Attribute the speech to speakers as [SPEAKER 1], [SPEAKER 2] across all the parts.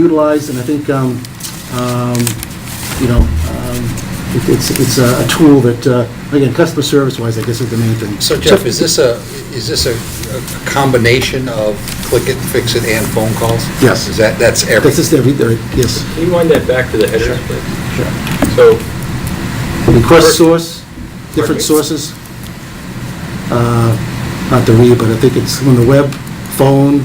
[SPEAKER 1] utilized, and I think, um, um, you know, um, it- it's, it's a a tool that, uh, again, customer service-wise, I guess is the main thing.
[SPEAKER 2] So Jeff, is this a, is this a a combination of click it, fix it, and phone calls?
[SPEAKER 1] Yes.
[SPEAKER 2] Is that, that's
[SPEAKER 1] That's
[SPEAKER 2] everything?
[SPEAKER 1] just every, there- yes.
[SPEAKER 3] Can you wind that back to the headers, please? So,
[SPEAKER 1] Request source, different
[SPEAKER 3] Perfect.
[SPEAKER 1] sources. Uh, Not to read, but I think it's on the web, phone,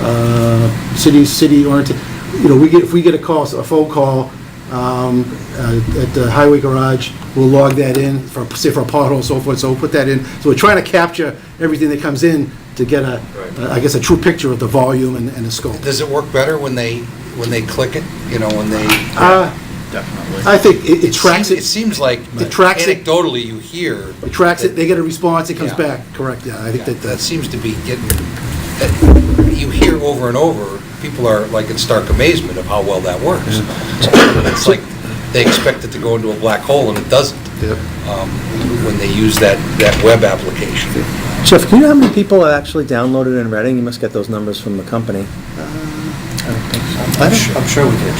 [SPEAKER 1] uh, city, city oriented. You know, we get, if we get a call, a phone call um, uh, at the highway garage, we'll log that in for, say for a pothole and so forth, so we'll put that in. So we're trying to capture everything that comes in to get a,
[SPEAKER 3] Right.
[SPEAKER 1] I guess, a true picture of the volume and and the scope.
[SPEAKER 2] Does it work better when they, when they click it, you know, when they?
[SPEAKER 1] Uh,
[SPEAKER 2] Definitely.
[SPEAKER 1] I think it it tracks
[SPEAKER 2] It
[SPEAKER 1] it,
[SPEAKER 2] seems like
[SPEAKER 1] It tracks it.
[SPEAKER 2] anecdotally you hear.
[SPEAKER 1] it tracks it, they get a response, it comes
[SPEAKER 2] Yeah.
[SPEAKER 1] back, correct, yeah, I think that uh,
[SPEAKER 2] That
[SPEAKER 1] that's.
[SPEAKER 2] seems to be getting, that you hear over and over, people are like in stark amazement of how well that works. It's like, they expect it to go into a black hole and it doesn't, um, when they use that, that web application.
[SPEAKER 4] Jeff, can you know how many people have actually downloaded and Reading? You must get those numbers from the company.
[SPEAKER 1] I'm sure, I'm sure we did.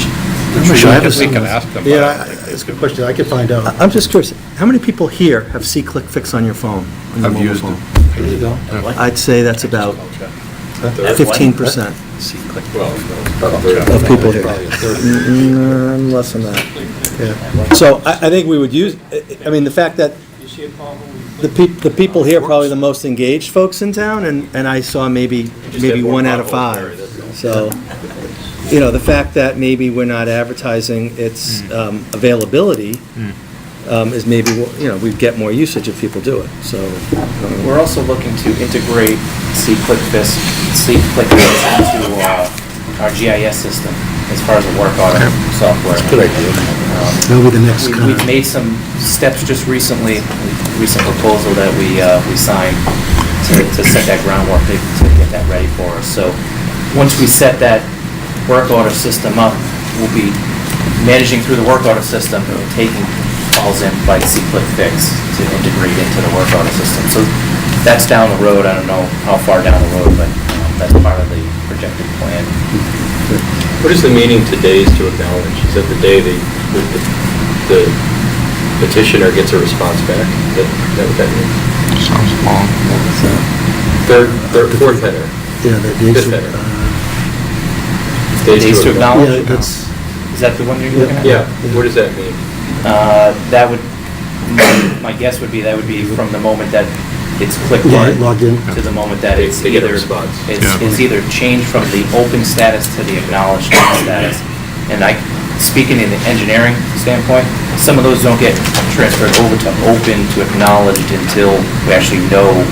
[SPEAKER 1] I'm
[SPEAKER 5] We can- we can ask them. but I don't
[SPEAKER 1] Yeah,
[SPEAKER 5] think
[SPEAKER 1] it's a good question, I could find
[SPEAKER 4] I-
[SPEAKER 1] out.
[SPEAKER 4] I'm just curious, how many people here have C-Click Fix on your phone? on your
[SPEAKER 5] I've
[SPEAKER 4] mobile
[SPEAKER 5] used
[SPEAKER 4] phone?
[SPEAKER 1] There you go.
[SPEAKER 4] I'd say that's about
[SPEAKER 3] third.
[SPEAKER 4] 15% of people here. Mm, Less than that.
[SPEAKER 1] Yeah.
[SPEAKER 4] So I I think we would use, I- I mean, the fact that the peop- the people here are probably the most engaged folks in town, and and I saw maybe,
[SPEAKER 3] just
[SPEAKER 4] maybe
[SPEAKER 3] have more
[SPEAKER 4] one out of
[SPEAKER 3] potholes, Barry,
[SPEAKER 4] five.
[SPEAKER 3] that's all.
[SPEAKER 4] So, you know, the fact that maybe we're not advertising its
[SPEAKER 3] Hmm.
[SPEAKER 4] um, availability um, is maybe, you know, we'd get more usage if people do it, so. um,
[SPEAKER 6] We're also looking to integrate C-ClickFist, C-ClickFist into uh, our GIS system as far as the work order software.
[SPEAKER 2] Good idea.
[SPEAKER 1] That'll be the next
[SPEAKER 6] We-
[SPEAKER 1] kind
[SPEAKER 6] We've
[SPEAKER 1] of-
[SPEAKER 6] made some steps just recently, recent proposal that we, uh, we signed to to set that groundwork, to to get that ready for us. So, once we set that work order system up, we'll be managing through the work order system and taking calls in by C-Click Fix to integrate into the work order system. So, that's down the road, I don't know how far down the road, but um, that's part of the projected plan.
[SPEAKER 3] what is the meaning today's to acknowledge? Is that the day the, the- the petitioner gets a response back? Is that is that what that means? Third, third, fourth header,
[SPEAKER 1] Yeah, that dates.
[SPEAKER 3] Good better.
[SPEAKER 1] uh,
[SPEAKER 6] Days to acknowledge.
[SPEAKER 1] Yeah, that's,
[SPEAKER 6] Is that the one you're looking at?
[SPEAKER 3] Yeah, what does that mean?
[SPEAKER 6] Uh, That would, my- my guess would be, that would be from the moment that it's clicked in.
[SPEAKER 1] Yeah, logged in.
[SPEAKER 6] To the moment that
[SPEAKER 3] They-
[SPEAKER 6] it's
[SPEAKER 3] they get a
[SPEAKER 6] either,
[SPEAKER 3] response.
[SPEAKER 6] it's it's either changed from the open status to the acknowledged status. And I, speaking in the engineering standpoint, some of those don't get transferred over to open to acknowledged until we actually know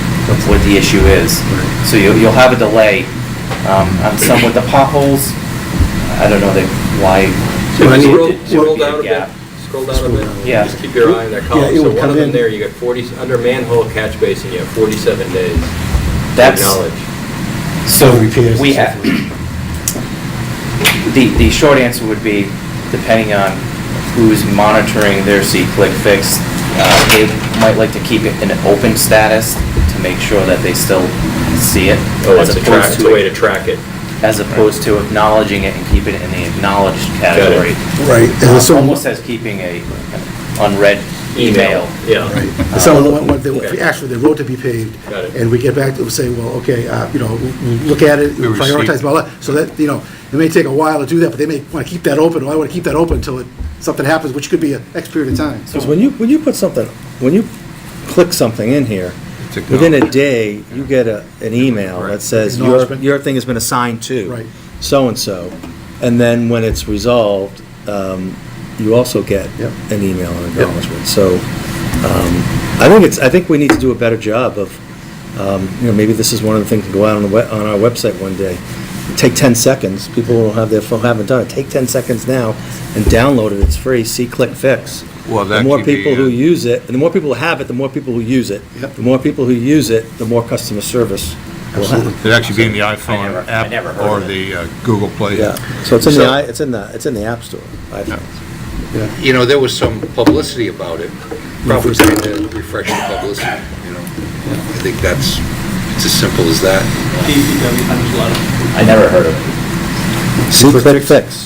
[SPEAKER 6] what the issue is. So you'll you'll have a delay um, on some with the potholes. I don't know that why.
[SPEAKER 1] I
[SPEAKER 3] So just
[SPEAKER 1] need-
[SPEAKER 3] scroll-
[SPEAKER 1] it-
[SPEAKER 3] Scroll down a
[SPEAKER 6] Yeah.
[SPEAKER 3] bit, scroll down a bit.
[SPEAKER 6] Yeah.
[SPEAKER 3] Just keep your eye on
[SPEAKER 1] Yeah,
[SPEAKER 3] that
[SPEAKER 1] it
[SPEAKER 3] column. So
[SPEAKER 1] would
[SPEAKER 3] one
[SPEAKER 1] come
[SPEAKER 3] of them
[SPEAKER 1] in.
[SPEAKER 3] there, you got 40, under manhole catch basin, you have 47 days. to
[SPEAKER 6] That's-
[SPEAKER 3] Acknowledge.
[SPEAKER 6] So
[SPEAKER 1] Repairs
[SPEAKER 6] we
[SPEAKER 1] and so
[SPEAKER 6] have, the, the short answer would be, depending on who's monitoring their C-Click Fix, uh, they might like to keep it in an open status to make sure that they still see it.
[SPEAKER 3] Oh,
[SPEAKER 6] as
[SPEAKER 3] it's a
[SPEAKER 6] opposed
[SPEAKER 3] track, it's a way to track it.
[SPEAKER 6] As opposed to acknowledging it and keeping it in the acknowledged category.
[SPEAKER 1] right. and
[SPEAKER 6] Um,
[SPEAKER 1] so-
[SPEAKER 6] Almost as keeping a an unread email.
[SPEAKER 3] Yeah.
[SPEAKER 1] Right. And So, what- what they-
[SPEAKER 3] Okay.
[SPEAKER 1] actually, the road to be paved.
[SPEAKER 3] Got it.
[SPEAKER 1] And we get back to, it, say, well, okay, uh, you know, we'll look at it,
[SPEAKER 5] We received-
[SPEAKER 1] prioritize, blah, blah. So that, you know, it may take a while to do that, but they may want to keep that open, or I want to keep that open until it- something happens, which could be an X period of time.
[SPEAKER 4] Because when you, when you put something, when you click something in here,
[SPEAKER 5] It's
[SPEAKER 4] within a day, you get a, an email that says, your,
[SPEAKER 1] Acknowledgement.
[SPEAKER 4] your thing has been assigned to.
[SPEAKER 1] Right.
[SPEAKER 4] So-and-so. And then when it's resolved, um, you also get
[SPEAKER 1] Yep.
[SPEAKER 4] an email and acknowledgement. So, um, I think it's, I think we need to do a better job of, um, you know, maybe this is one of the things that go out on the, we- on our website one day. Take ten seconds, people will have their phone, haven't done it, take ten seconds now and download it, it's free, see, click, fix.
[SPEAKER 5] Well,
[SPEAKER 4] The
[SPEAKER 5] that
[SPEAKER 4] more
[SPEAKER 5] could be,
[SPEAKER 4] people who
[SPEAKER 5] uh,
[SPEAKER 4] use it, and the more people who have it, the more people who use it.
[SPEAKER 1] Yep.
[SPEAKER 4] The more people who use it, the more customer service we'll
[SPEAKER 1] Absolutely.
[SPEAKER 4] have.
[SPEAKER 5] It'd actually be in the
[SPEAKER 6] never-
[SPEAKER 5] iPhone
[SPEAKER 6] I
[SPEAKER 5] app
[SPEAKER 6] never heard
[SPEAKER 5] or
[SPEAKER 6] of it.
[SPEAKER 5] the uh, Google Play.
[SPEAKER 4] Yeah,
[SPEAKER 5] app.
[SPEAKER 4] so it's in the,
[SPEAKER 2] So-
[SPEAKER 4] i- it's in the, it's in the App Store. I
[SPEAKER 5] Yeah.
[SPEAKER 2] You know, there was some publicity about it, probably trying to refresh the publicity, you know? I think that's, it's as simple as that.
[SPEAKER 6] I never heard of it.
[SPEAKER 4] See, click, fix.